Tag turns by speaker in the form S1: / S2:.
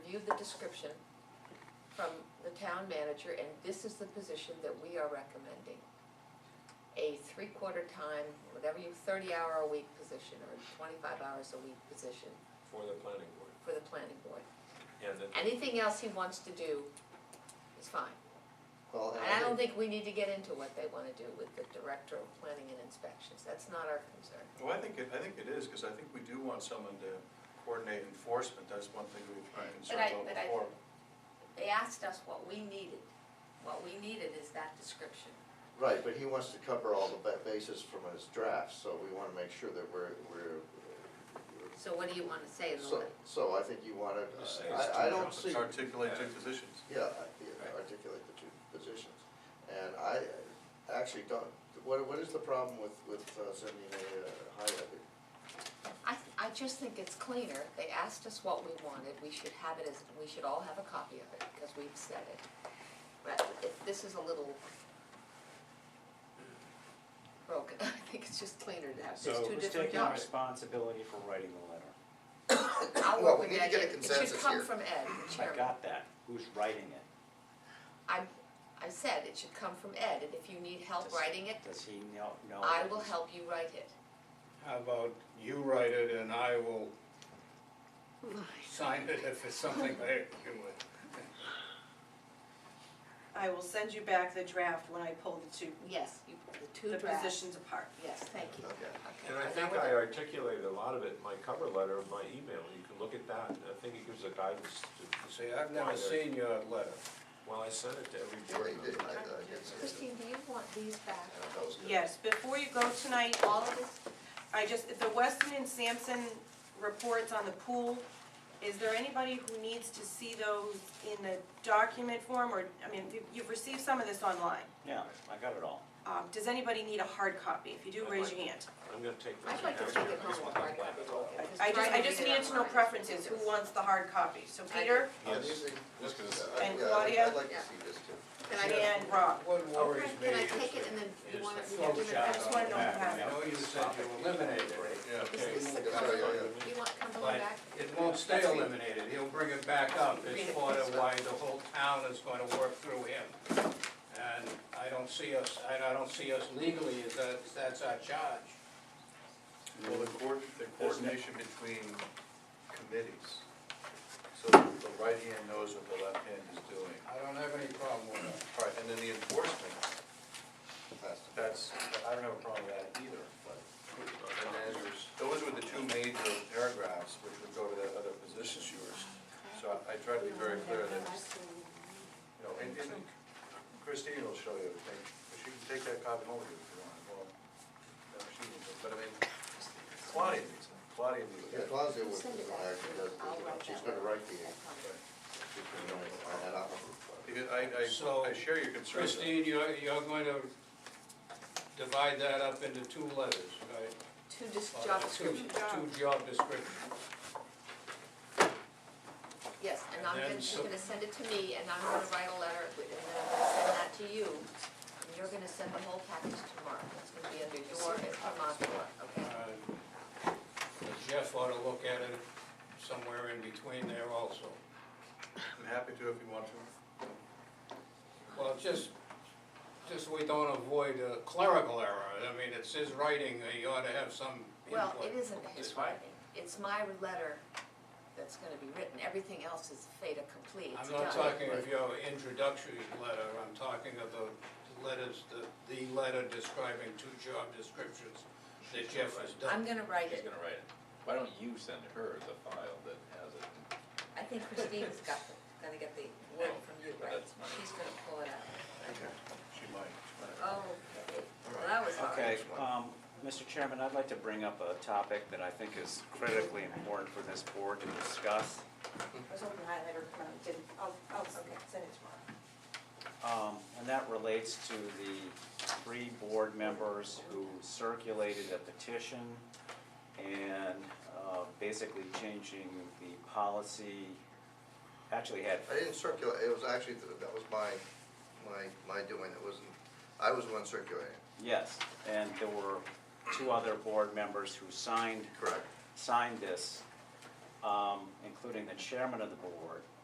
S1: review the description from the town manager, and this is the position that we are recommending. A three-quarter time, whatever you, thirty-hour a week position, or twenty-five hours a week position
S2: for the planning board.
S1: for the planning board.
S2: Yeah, that,
S1: Anything else he wants to do is fine.
S3: Well,
S1: And I don't think we need to get into what they wanna do with the director of planning and inspections, that's not our concern.
S4: Well, I think it, I think it is, because I think we do want someone to coordinate enforcement, that's one thing we've been
S1: But I-
S4: concerned about
S1: but I-
S4: before.
S1: They asked us what we needed, what we needed is that description.
S3: Right, but he wants to cover all the ba- bases from his draft, so we wanna make sure that we're, we're.
S1: So what do you wanna say in the
S3: So,
S1: letter?
S3: so I think you wanna, uh,
S4: Just say it's
S3: I, I
S4: two
S3: don't
S4: jobs.
S3: see.
S4: Articulate two positions.
S3: Yeah, I- yeah, articulate the two positions. And I uh, actually don't, what, what is the problem with, with uh, sending a uh, highlighter?
S1: I, I just think it's cleaner, they asked us what we wanted, we should have it as, we should all have a copy of it, because we've said it. But if, this is a little broken, I think it's just cleaner to have, there's
S5: So
S1: two
S5: who's
S1: different
S5: taking
S1: jobs.
S5: responsibility for writing the letter?
S1: I'll
S3: Well,
S1: work with
S3: we need to
S1: Ed,
S3: get a
S1: it it should
S3: consensus
S1: come
S3: here.
S1: from Ed, the
S5: I
S1: chairman.
S5: got that, who's writing it?
S1: I, I said it should come from Ed, and if you need help
S5: Does-
S1: writing it,
S5: Does he know, know?
S1: I will help you write it.
S6: How about you write it and I will sign it if it's something I agree with.
S7: I will send you back the draft when I pull the two,
S1: Yes, you, the two
S7: the
S1: drafts.
S7: positions apart.
S1: Yes, thank you.
S3: Okay.
S1: Okay,
S2: and I
S1: know
S2: think
S1: what-
S2: I articulated a lot of it in my cover letter, in my email, you can look at that, and I think it gives a guidance to.
S6: See, I've never
S2: Why they're-
S6: seen your letter.
S2: Well, I sent it to every
S3: Yeah,
S2: board
S3: you did,
S2: member.
S3: I, I did say that.
S1: Christine, do you want these back?
S3: Yeah, that was good.
S7: Yes, before you go tonight, all of this, I just, the Weston and Sampson reports on the pool, is there anybody who needs to see those in the document form, or, I mean, you- you've received some of this online.
S5: Yeah, I got it all.
S7: Um, Does anybody need a hard copy? If you do,
S2: I'd
S7: raise
S2: like
S7: your hand.
S2: I'm gonna take this.
S1: I'd like to
S2: and
S1: take
S2: have
S1: it home with hard copy.
S7: I just, I just needed to know preferences, who wants the hard copy? So Peter
S3: Uh,
S2: Yes.
S3: these things-
S2: Just gonna-
S3: uh,
S7: And
S3: yeah, I'd-
S7: Claudia?
S3: I'd like to
S1: Yeah.
S3: see this too.
S1: Can I,
S7: and Rob.
S6: What worries me
S1: can I
S6: is
S1: take it
S6: the-
S1: and then you
S6: is
S1: want
S6: the
S1: it, you want it,
S6: flowchart
S7: I just wanna
S6: on
S7: know
S6: the
S7: who has
S6: back. I know you said you eliminated it,
S2: Yeah, okay.
S1: Is this the
S3: Yeah, yeah, yeah, yeah.
S1: you want Cumberland
S6: but
S1: back?
S6: it won't stay eliminated, he'll bring it back up,
S1: Read
S6: it's
S1: it,
S6: part of
S1: please.
S6: why the whole town is gonna work through him. And I don't see us, I I don't see us legally, as that, that's our charge.
S4: Well, the coord, the coordination between committees, so that the right hand knows what the left hand is doing.
S6: I don't have any problem with that.
S4: All right, and then the enforcement,
S3: That's-
S4: that's, I don't have a problem with that either, but. And then there's, those were the two major paragraphs which would go to the other positions yours. So I I try to be very clear that, you know, and and Christine will show you everything, but she can take that copy home with you if you want, well, no, she can, but I mean, Claudia needs it, Claudia needs
S3: Yeah,
S4: it.
S3: Claudia was,
S1: Send it back. I'll write
S3: she's
S1: that
S3: gonna
S1: one.
S3: write the,
S1: That copy.
S3: she's gonna write it, and I'll-
S4: Because I, I, I share your concerns.
S6: Christine, you're, you're going to divide that up into two letters, right?
S1: Two dis-
S6: Or
S1: job
S6: two-
S1: descriptions,
S6: Two job descriptions.
S1: yes, and
S6: And
S1: I'm
S6: then
S1: gonna,
S6: so-
S1: you're gonna send it to me, and I'm gonna write a letter, and then I'm gonna send that to you. And you're gonna send the whole package tomorrow, it's gonna be under your and Vermont's door,
S6: Uh,
S1: okay?
S6: Jeff ought to look at it somewhere in between there also.
S4: I'm happy to if you want to.
S6: Well, just, just we don't avoid a clerical error, I mean, it's his writing, you ought to have some input.
S1: Well, it isn't his
S6: It's fine.
S1: writing, it's my letter that's gonna be written, everything else is fait accompli, it's
S6: I'm
S1: done.
S6: not talking of your introductory letter, I'm talking of the letters, the, the letter describing two job descriptions that Jeff has done.
S1: I'm gonna write
S8: She's
S1: it,
S8: gonna write it. Why don't you send her the file that has it?
S1: I think Christine's got, the- gonna get the word from you, right?
S8: That's mine.
S1: She's gonna pull it out.
S4: She might. she might.
S1: Oh, well, that was hard.
S5: Okay, um, Mr. Chairman, I'd like to bring up a topic that I think is critically important for this board to discuss.
S7: I was hoping the highlighter come out, didn't, I'll, I'll send it tomorrow.
S5: Um, and that relates to the three board members who circulated a petition and, uh, basically changing the policy, actually had
S3: I didn't circulate, it was actually, that was my, my, my doing, it wasn't, I was the one circulating.
S5: Yes, and there were two other board members who signed,
S3: Correct.
S5: signed this, um, including the chairman of the board.